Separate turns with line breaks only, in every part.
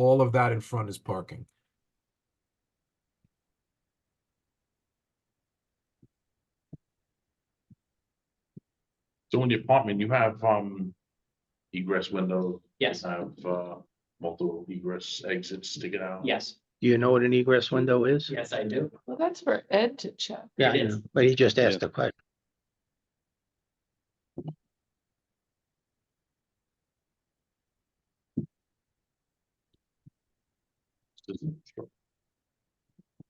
All of that in front is parking.
So in the apartment, you have, um, egress windows.
Yes,
Have, uh, multiple egress exits to get out.
yes,
Do you know what an egress window is?
yes, I do.
Well, that's for Ed to check.
Yeah, I
It
know,
is.
but he just asked the question.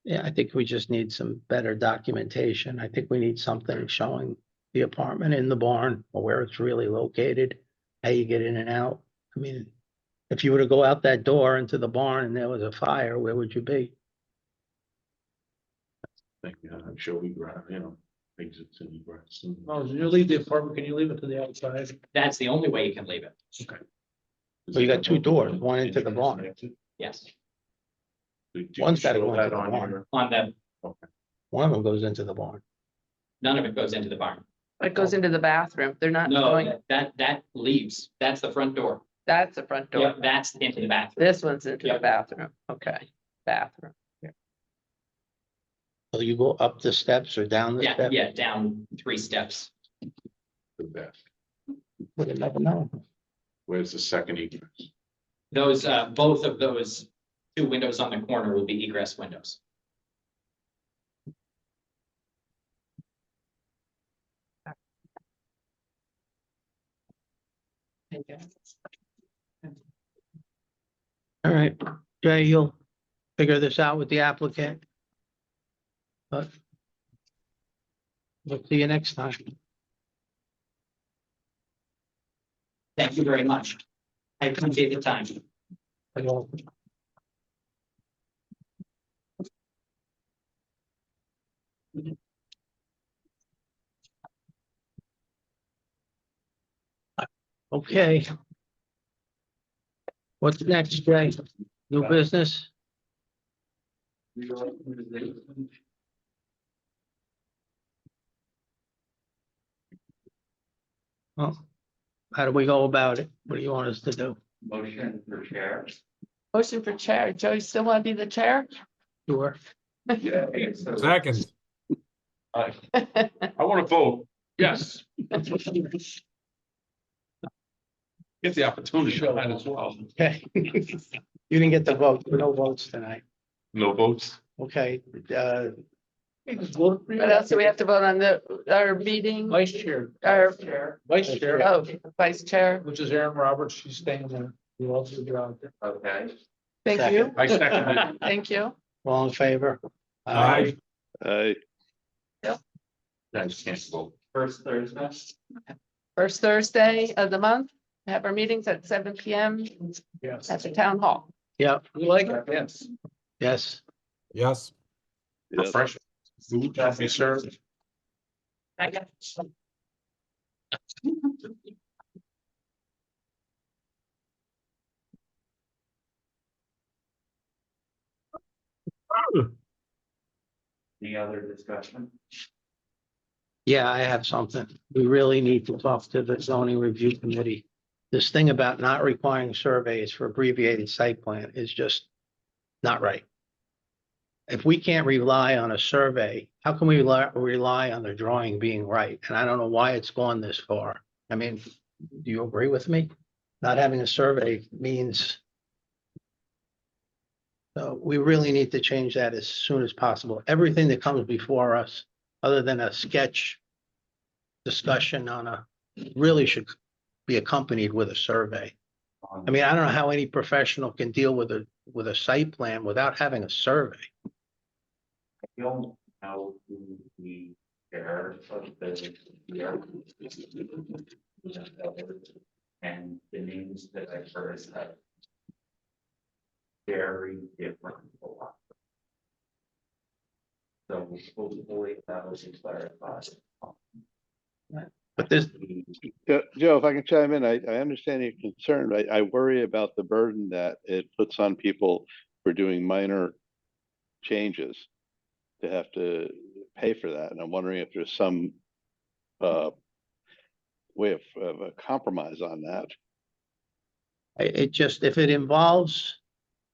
Yeah, I think we just need some better documentation. I think we need something showing the apartment in the barn or where it's really located, how you get in and out. I mean, if you were to go out that door into the barn and there was a fire, where would you be?
Thank you, I'm sure we grab, you know, exits and egress. and-
Well, you leave the apartment, can you leave it to the outside?
That's the only way you can leave it.
Well, you got two doors, one into the barn.
Exit.
Yes,
Do you
One's gotta
show
go into
that
the
on
barn.
your-
on the,
One of them goes into the barn.
none of it goes into the barn.
It goes into the bathroom. They're not
No,
going,
that- that, that leaves. That's the front door.
that's the front
Yeah,
door.
that's into the bathroom.
This one's into
Yeah.
the bathroom. Okay, bathroom.
So you go up the steps or down the
Yeah,
steps?
yeah, down three steps.
The back.
Would have never known.
Where's the second egress?
Those, uh, both of those two windows on the corner will be egress windows.
All right, Jay, you'll figure this out with the applicant. But we'll see you next time.
Thank you very much. I appreciate the time.
Okay. What's next, Jay? New business? Well, how do we go about it? What do you want us to do?
Motion for chair.
Motion for chair. Joe, you still want to be the chair?
Sure.
Second,
I wanna vote, yes. Get the opportunity to that as well.
Okay. You didn't get the vote, no votes tonight.
No votes?
Okay, uh,
What else do we have to vote on the, our meeting?
Vice chair,
Our,
vice chair,
oh, vice chair.
which is Aaron Roberts, she's staying there. You also get out there.
Okay.
Thank you.
I second it.
Thank you.
all in favor?
aye,
Aye.
I just can't vote.
First Thursday.
First Thursday of the month, we have our meetings at seven P M
Yes,
at the town hall.
Yep,
we like it, yes.
yes.
yes.
Yes.
Fresh food should be served.
Any other discussion?
Yeah, I have something. We really need to talk to the zoning review committee. This thing about not requiring surveys for abbreviated site plan is just not right. If we can't rely on a survey, how can we rely, rely on the drawing being right? And I don't know why it's gone this far. I mean, do you agree with me? Not having a survey means so we really need to change that as soon as possible. Everything that comes before us other than a sketch discussion on a, really should be accompanied with a survey. I mean, I don't know how any professional can deal with a, with a site plan without having a survey.
don't know who the chair of the ERC. And the names that I heard have. Very different. philosophy. So hopefully that was clarified.
But this,
Jo- Joe, if I can chime in, I, I understand your concern. I, I worry about the burden that it puts on people for doing minor changes to have to pay for that. And I'm wondering if there's some uh, way of, of a compromise on that.
I- it just, if it involves